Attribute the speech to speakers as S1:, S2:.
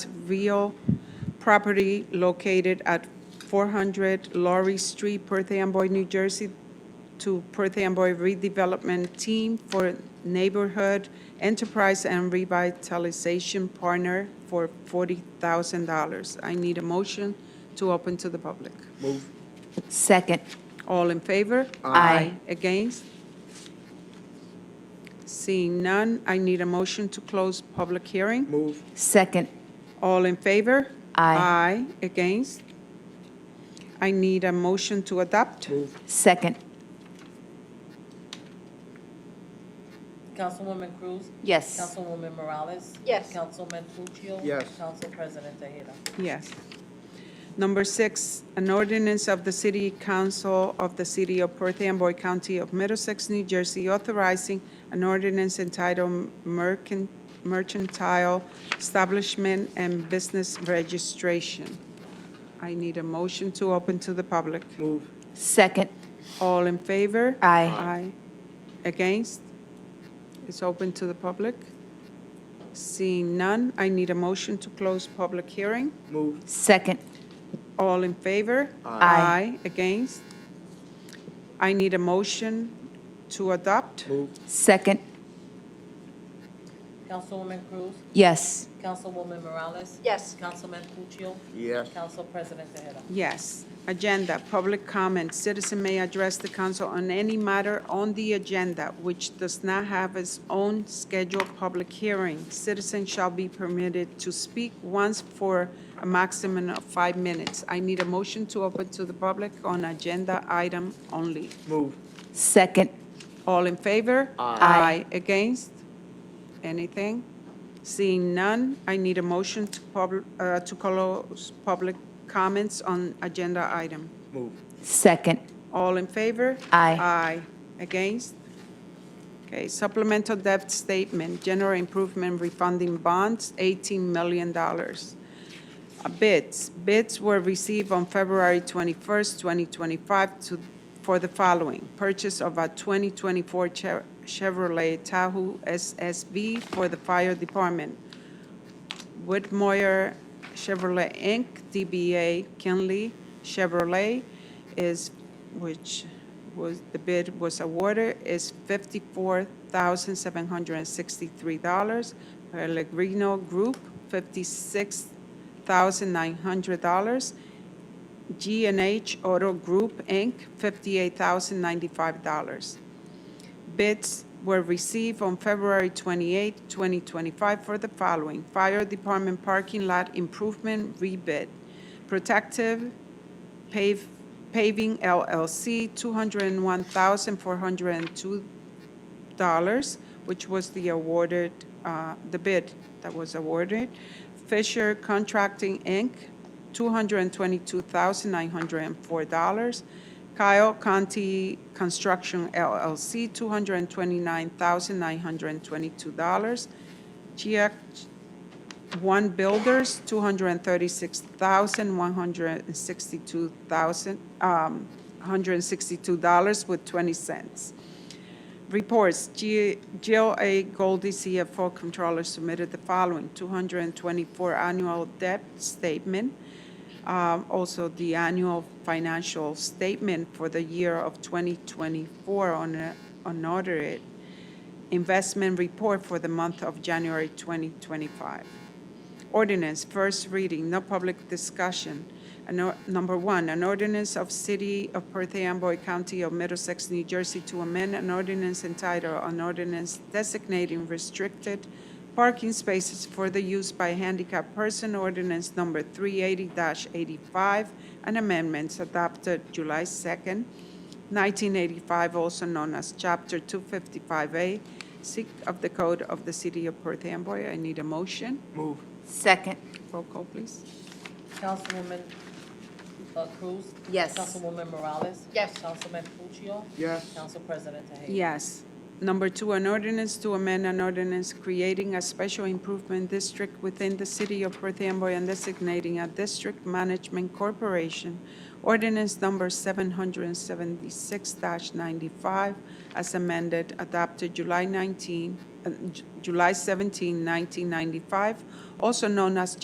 S1: Trujillo property located at 400 Laurie Street, Perth Amboy, New Jersey, to Perth Amboy Redevelopment Team for Neighborhood Enterprise and Revitalization Partner for $40,000. I need a motion to open to the public.
S2: Move.
S3: Second.
S1: All in favor?
S3: Aye.
S1: Against? Seeing none, I need a motion to close public hearing.
S2: Move.
S3: Second.
S1: All in favor?
S3: Aye.
S1: Aye. Against? I need a motion to adopt.
S2: Move.
S3: Second.
S4: Councilwoman Cruz?
S3: Yes.
S4: Councilwoman Morales?
S5: Yes.
S4: Councilman Puccio?
S2: Yes.
S4: Council President Tejeda?
S1: Yes. Number six, an ordinance of the City Council of the City of Perth Amboy County of Middlesex, New Jersey, authorizing an ordinance entitled Mercan- Mercantile Establishment and Business Registration. I need a motion to open to the public.
S2: Move.
S3: Second.
S1: All in favor?
S3: Aye.
S1: Aye. Against? It's open to the public. Seeing none, I need a motion to close public hearing.
S2: Move.
S3: Second.
S1: All in favor?
S3: Aye.
S1: Against? I need a motion to adopt.
S2: Move.
S3: Second.
S4: Councilwoman Cruz?
S3: Yes.
S4: Councilwoman Morales?
S5: Yes.
S4: Councilman Puccio?
S2: Yes.
S4: Council President Tejeda?
S1: Yes. Agenda, public comment. Citizen may address the council on any matter on the agenda which does not have its own scheduled public hearing. Citizen shall be permitted to speak once for a maximum of five minutes. I need a motion to open to the public on agenda item only.
S2: Move.
S3: Second.
S1: All in favor?
S3: Aye.
S1: Against? Anything? Seeing none, I need a motion to pub, uh, to close public comments on agenda item.
S2: Move.
S3: Second.
S1: All in favor?
S3: Aye.
S1: Aye. Against? Okay, supplemental debt statement, general improvement refunding bonds, $18 million. Uh, Bids, bids were received on February 21st, 2025 to, for the following: purchase of a 2024 Chev- Chevrolet Tahoe SSV for the fire department, Whitmire Chevrolet Inc., DBA Kinley Chevrolet is, which was, the bid was awarded, is $54,763. Pellegrino Group, $56,900. g and H Auto Group, Inc., $58,095. Bids were received on February 28, 2025 for the following: Fire Department Parking Lot Improvement Rebid, Protective Pave- Paving LLC, $201,402, which was the awarded, uh, the bid that was awarded. Fisher Contracting, Inc., $222,904. Kyle Conti Construction LLC, $229,922. Gia One Builders, $236,162,000, um, $162 with 20 cents. Reports, G- Jill A. Goldie, CFO Controller, submitted the following, 224 annual debt statement, um, also the annual financial statement for the year of 2024 on a- unaudited, investment report for the month of January 2025. Ordinance, first reading, no public discussion. An or- Number one, an ordinance of City of Perth Amboy County of Middlesex, New Jersey to amend an ordinance entitled, an ordinance designating restricted parking spaces for the use by handicapped person, ordinance number 380-85, and amendments adopted July 2nd, 1985, also known as Chapter 255A, Sec of the Code of the City of Perth Amboy. I need a motion.
S2: Move.
S3: Second.
S1: Roll call, please.
S4: Councilwoman uh, Cruz?
S3: Yes.
S4: Councilwoman Morales?
S5: Yes.
S4: Councilman Puccio?
S2: Yes.
S4: Council President Tejeda?
S1: Yes. Number two, an ordinance to amend an ordinance creating a special improvement district within the city of Perth Amboy and designating a district management corporation, ordinance number 776-95, as amended, adopted July 19, uh, J- July 17, 1995, also known as